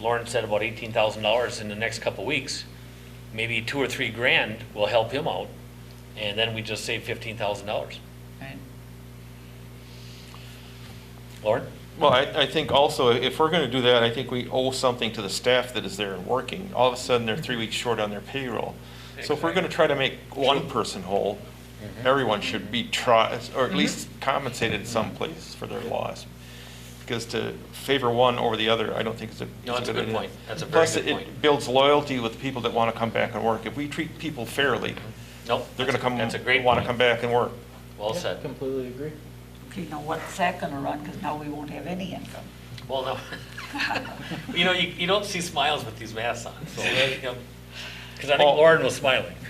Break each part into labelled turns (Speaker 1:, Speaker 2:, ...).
Speaker 1: Lauren said about eighteen thousand dollars in the next couple weeks. Maybe two or three grand will help him out, and then we just save fifteen thousand dollars.
Speaker 2: Right.
Speaker 1: Lauren?
Speaker 3: Well, I, I think also, if we're gonna do that, I think we owe something to the staff that is there and working. All of a sudden, they're three weeks short on their payroll. So if we're gonna try to make one person whole,
Speaker 4: Mm-hmm.
Speaker 3: everyone should be try, or
Speaker 1: Mm-hmm.
Speaker 3: at least compensated someplace for their loss. Because to favor one over the other, I don't think is a.
Speaker 1: No, that's
Speaker 3: is
Speaker 1: a good
Speaker 3: idea.
Speaker 1: point. That's a very
Speaker 3: Plus,
Speaker 1: good
Speaker 3: it-
Speaker 1: point.
Speaker 3: it builds loyalty with people that wanna come back and work. If we treat people fairly,
Speaker 1: Nope.
Speaker 3: they're gonna come,
Speaker 1: That's a great
Speaker 3: wanna
Speaker 1: point.
Speaker 3: come back and work.
Speaker 1: Well
Speaker 4: Yeah,
Speaker 1: said.
Speaker 4: Completely agree.
Speaker 2: Okay, now what's that gonna run? Because now we won't have any income.
Speaker 1: Well, no. You know, you, you don't see smiles with these masks on, so, because I think
Speaker 3: Well-
Speaker 1: Lauren was smiling.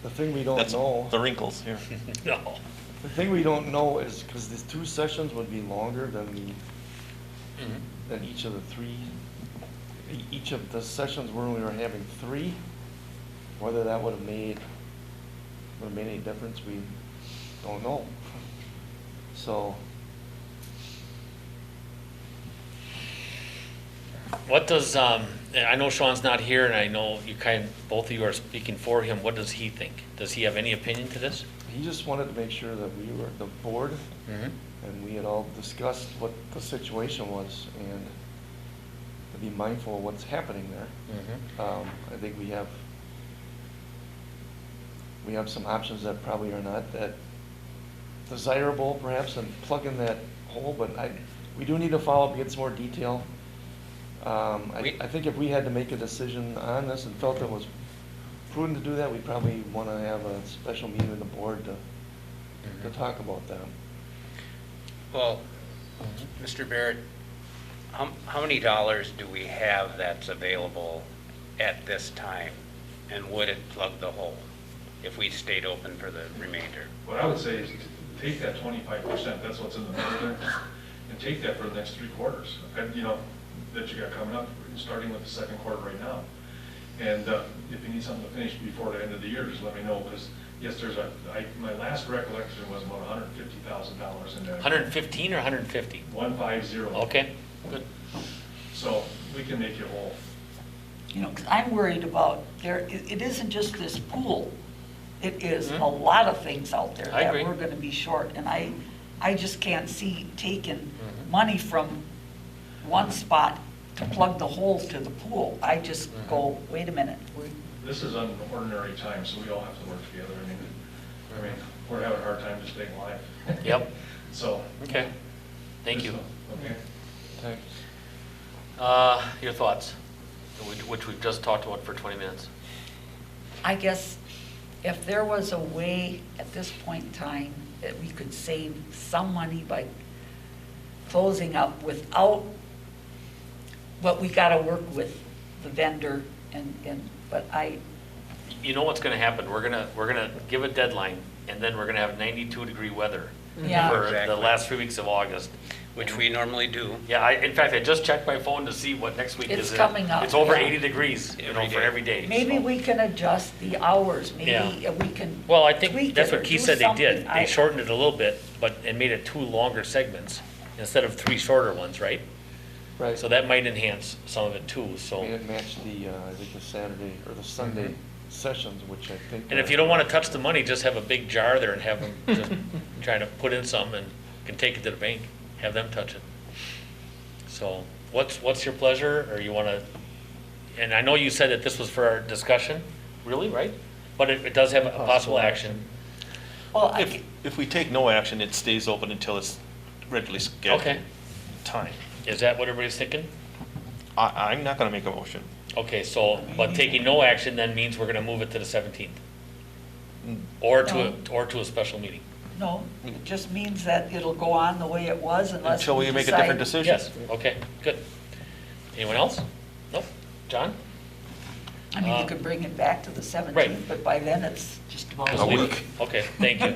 Speaker 4: The thing we don't
Speaker 3: That's
Speaker 4: know,
Speaker 3: the wrinkles here.
Speaker 1: No.
Speaker 4: the thing we don't know is, because these two sessions would be longer than the,
Speaker 1: Mhm.
Speaker 4: than each of the three, e- each of the sessions where we were having three, whether that would have made, would have made any difference, we don't know. So,
Speaker 1: What does, um, and I know Sean's not here, and I know you kind, both of you are speaking for him. What does he think? Does he have any opinion to this?
Speaker 4: he just wanted to make sure that we were, the board
Speaker 1: Mm-hmm.
Speaker 4: And we had all discussed what the situation was and to be mindful of what's happening there.
Speaker 1: Mm-hmm.
Speaker 4: Um, I think we have, we have some options that probably are not that desirable perhaps and plug in that hole, but I, we do need to follow up, and get some more detail. Um, I,
Speaker 1: We-
Speaker 4: I think if we had to make a decision on this and felt it was prudent to do that, we probably want to have a special meeting with the board to,
Speaker 1: Mm-hmm.
Speaker 4: to talk about that.
Speaker 5: Well, Mr. Barrett, how, how many dollars do we have that's available at this time? And would it plug the hole if we stayed open for the remainder?
Speaker 6: What I would say is to take that twenty-five percent, that's what's in the middle there, and take that for the next three quarters, and, you know, that you got coming up, starting with the second quarter right now. And uh, if you need something to finish before the end of the year, just let me know, because, yes, there's a, I, my last recollection was about hundred and fifty thousand dollars in that.
Speaker 1: Hundred and fifteen or hundred and fifty?
Speaker 6: One five zero.
Speaker 1: Okay, good.
Speaker 6: So we can make you whole.
Speaker 2: You know, 'cause I'm worried about, there, it it isn't just this pool. It is a
Speaker 1: Mhm.
Speaker 2: lot of things out there
Speaker 1: I
Speaker 2: that
Speaker 1: agree.
Speaker 2: we're gonna be short. And I, I just can't see taking
Speaker 1: Mm-hmm.
Speaker 2: money from one spot to plug the hole to the pool. I just go,
Speaker 1: Mm-hmm.
Speaker 2: wait a minute, we-
Speaker 6: This is an ordinary time, so we all have to work together. I mean, I mean, we're having a hard time just staying alive.
Speaker 1: Yep.
Speaker 6: So.
Speaker 1: Okay, thank you.
Speaker 6: Okay.
Speaker 4: Thanks.
Speaker 1: Uh, Your thoughts, which- which we've just talked about for 20 minutes.
Speaker 2: I guess if there was a way at this point in time that we could save some money by closing up without, but we gotta work with the vendor and, and, but I,
Speaker 1: You know what's going to happen? We're going to, we're going to give a deadline, and then we're going to have 92-degree weather
Speaker 2: Yeah.
Speaker 1: for the
Speaker 5: Exactly. Mm-hmm.
Speaker 1: last three weeks of August.
Speaker 5: Which we normally do.
Speaker 1: Yeah, I, in fact, I just checked my phone to see what next week is.
Speaker 2: It's
Speaker 1: and
Speaker 2: coming up,
Speaker 1: It's over
Speaker 2: yeah.
Speaker 1: 80 degrees, you know,
Speaker 5: Every
Speaker 1: for
Speaker 5: day.
Speaker 1: every day.
Speaker 2: maybe
Speaker 1: so.
Speaker 2: we can adjust the hours, maybe
Speaker 1: Yeah.
Speaker 2: we can.
Speaker 1: Well, I think
Speaker 2: tweak
Speaker 1: that's
Speaker 2: it or
Speaker 1: what Keith
Speaker 2: do
Speaker 1: said they did.
Speaker 2: something.
Speaker 1: They
Speaker 2: I-
Speaker 1: shortened it a little bit, but, and made it two longer segments instead of three shorter ones, right?
Speaker 4: Right.
Speaker 1: So that might enhance some of it too, so.
Speaker 4: Made it match the, uh, I think the Saturday or the Sunday sessions, which I think.
Speaker 1: Mm-hmm. And if you don't want to touch the money, just have a big jar there and have them just trying to put in some and can take it to the bank, have them touch it. So what's, what's your pleasure, or you want to, and I know you said that this was for our discussion, really, right? But it, it does have a possible action.
Speaker 2: Well, I
Speaker 3: If,
Speaker 2: get-
Speaker 3: if we take no action, it stays open until it's regularly scheduled
Speaker 1: Okay.
Speaker 3: time.
Speaker 1: Is that what everybody's thinking?
Speaker 3: I, I'm not gonna make a motion.
Speaker 1: Okay, so, but taking no action then means we're going to move it to the 17th?
Speaker 3: Mm,
Speaker 1: Or to, a- or to a special meeting?
Speaker 2: no, it just means that it'll go on the way it was unless.
Speaker 3: Until we make a different
Speaker 2: decide-
Speaker 3: decision.
Speaker 1: Yes, okay, good. Anyone else? Nope. John?
Speaker 2: I mean, you
Speaker 1: Uh,
Speaker 2: could bring it back to the 17th, but by then it's just about.
Speaker 1: Just
Speaker 3: A
Speaker 1: leave it.
Speaker 3: week.
Speaker 1: Okay, thank you.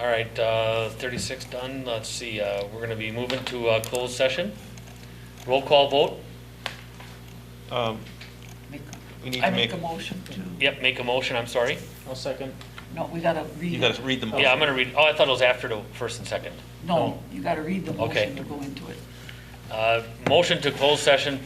Speaker 1: All right, uh, 36 done, let's see, uh, we're going to be moving to uh, closed session. Roll call vote,
Speaker 3: Um,
Speaker 2: Make-
Speaker 3: We need
Speaker 2: I
Speaker 3: to
Speaker 2: make
Speaker 3: make,
Speaker 2: a motion to,
Speaker 1: yep, make a motion, I'm sorry.
Speaker 4: I'll second.
Speaker 2: no, we gotta
Speaker 3: you
Speaker 2: read
Speaker 3: gotta
Speaker 2: it.
Speaker 3: read them.
Speaker 1: Yeah, I'm oh, going to read, oh, I thought it was after the first and second.
Speaker 2: No, you gotta read the
Speaker 1: Okay.
Speaker 2: motion to go into it.
Speaker 1: Uh, Motion to close session